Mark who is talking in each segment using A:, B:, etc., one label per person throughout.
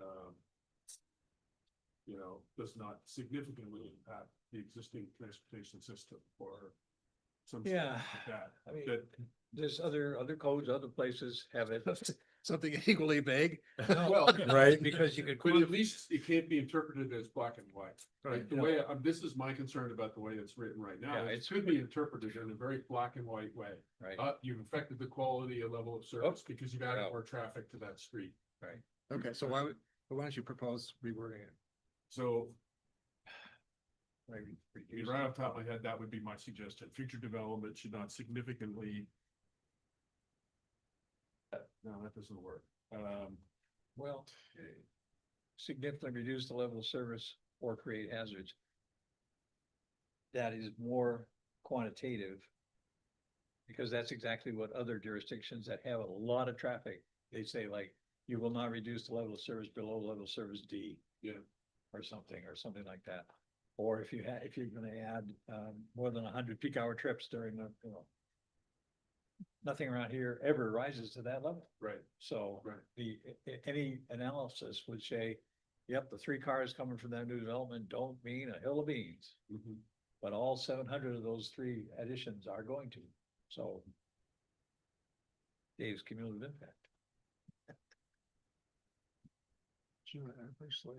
A: um, you know, does not significantly impact the existing transportation system or some. stuff
B: Yeah,
A: like That,
B: I mean,
A: that,
B: there's other, other codes, other places have it, something equally vague. No,
A: well,
C: Right.
B: Because you could.
A: but at
B: quantify-
A: least it can't be interpreted as black and white. Right, the
B: Yeah.
A: way, um, this is my concern about the way it's written right now,
B: Yeah,
A: it
B: it's-
A: could be interpreted in a very black and white way.
B: Right,
A: Uh, you've affected the quality and level of service because you've added
B: Oh. Yeah.
A: more traffic to that street.
C: Okay, so why would, why don't you propose rewording it?
A: So
B: maybe reduce
A: right off the top of my head, that would be my suggestion. Future development should not significantly. No, that doesn't work. Um,
B: Well, significantly reduce the level of service or create hazards. That is more quantitative. Because that's exactly what other jurisdictions that have a lot of traffic, they say like, you will not reduce the level of service below level of service D.
A: Yeah.
B: Or something, or something like that. Or if you had, if you're gonna add, um, more than hundred peak hour trips during the, you know. Nothing around here ever rises to that level.
A: right,
B: So
A: Right.
B: the, a- a- any analysis would say, yep, the three cars coming from that new development don't mean a hill of beans.
A: mhm.
B: But all seven hundred of those three additions are going to, so. Dave's cumulative impact.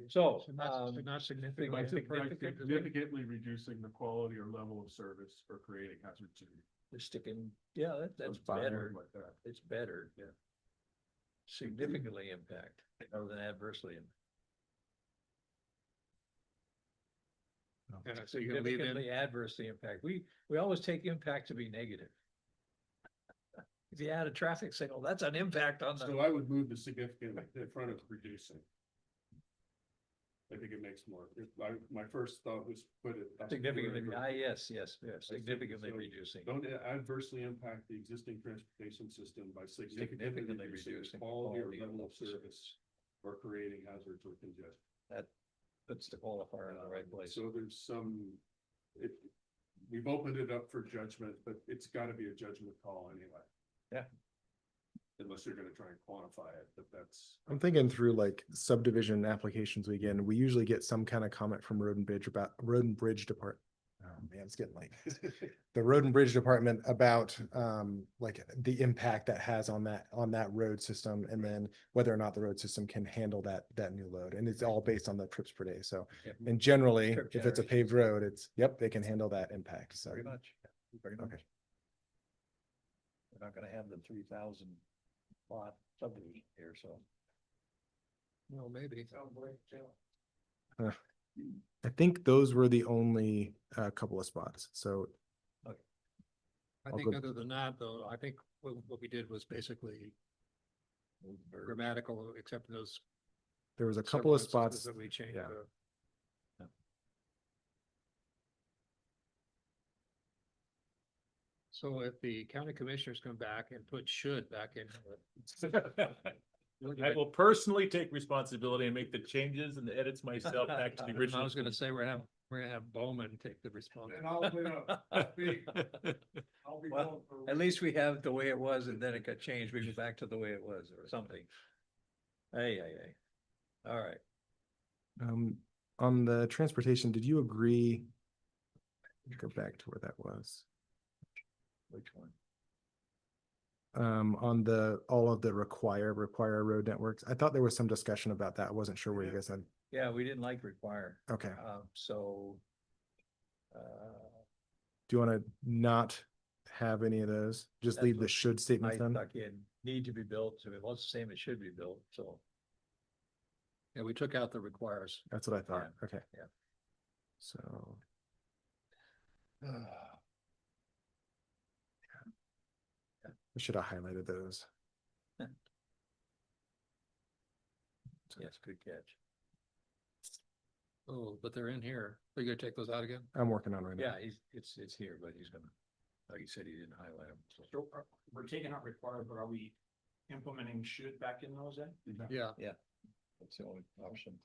B: So,
C: Should not-
B: um,
C: should not significant.
B: by
A: By
B: significant-
A: Significantly reducing the quality or level of service or creating hazard to.
B: we're sticking, yeah, that, that's
A: Some bad
B: better,
A: word Like that.
B: it's better.
A: Yeah.
B: Significantly impact, rather than adversely. impact.
C: Yeah, So you're gonna leave in,
B: Significantly adversely impact. We, we always take impact to be negative. If you add a traffic signal, that's an impact on
A: So
B: the,
A: I would move the significant in front of reducing. I think it makes more, if I, my first thought was put it. up
B: significantly,
A: where-
B: ah, yes, yes, yes,
A: I see.
B: significantly
A: So
B: reducing.
A: Don't adversely impact the existing transportation system by significantly
B: Significantly
A: reducing the
B: reducing. the
A: quality or
B: quality
A: level of
B: the
A: service or creating hazards or congestion.
B: That puts the qualifier in the right
A: Um,
B: place.
A: So there's some, it, we've opened it up for judgment, but it's gotta be a judgment call anyway.
B: Yeah.
A: Unless you're gonna try and quantify it, but that's.
D: I'm thinking through like subdivision applications we get, and we usually get some kind of comment from Road and Bridge about, Road and Bridge Depart. Oh man, it's getting late. The Road and Bridge Department about um like the impact that has on that, on that road system and then whether or not the road system can handle that, that new load. And it's all based on the trips per day. So,
B: Yep.
D: and generally,
B: Trip
D: if it's a
B: generation.
D: paved road, it's, yep, they can handle that impact. So,
C: Mm-hmm.
B: Very much, very much.
D: okay.
B: We're not gonna have the three thousand lot subdivision here, so.
C: well, maybe.
D: I think those were the only uh couple of spots. So
C: I
D: I'll
C: think
D: go-
C: other than that, though, I think what, what we did was basically grammatical, except in those.
D: there was a
C: several
D: couple of
C: instances
D: spots.
C: That we changed.
D: yeah.
C: the- So if the county commissioners come back and put should back in.
E: I will personally take responsibility and make the changes and the edits myself back to the original.
C: I was gonna say, we're having, we're gonna have Bowman take the response.
A: I'll, be, I'll be.
B: Well, At least we have the way it was and then it got changed. We go back to the way it was or something. Hey, hey, hey. All right.
D: Um, on the transportation, did you agree? Go back to where that was.
B: Which one?
D: Um, on the, all of the require, require road networks. I thought there was some discussion about that. I wasn't sure where you
A: Yeah.
D: guys had.
B: Yeah, we didn't like require,
D: Okay.
B: um, so. Uh,
D: Do you want to not have any of those? Just
B: That's
D: leave the
B: what
D: should
B: I
D: statement then?
B: stuck in need to be built, so it was the same, it should be built, so.
C: Yeah, we took out the requires.
D: That's what I thought. Okay.
B: yeah.
D: So,
B: Ah,
D: I should have highlighted those.
B: Yes, good catch.
C: Oh, but they're in here. Are you gonna take those out again?
D: I'm working on right now.
B: Yeah, he's, it's, it's here, but he's gonna, like you said, he didn't highlight them, so.
F: uh, We're taking out required, but are we implementing should back in those then?
C: Yeah.
B: That's the only option.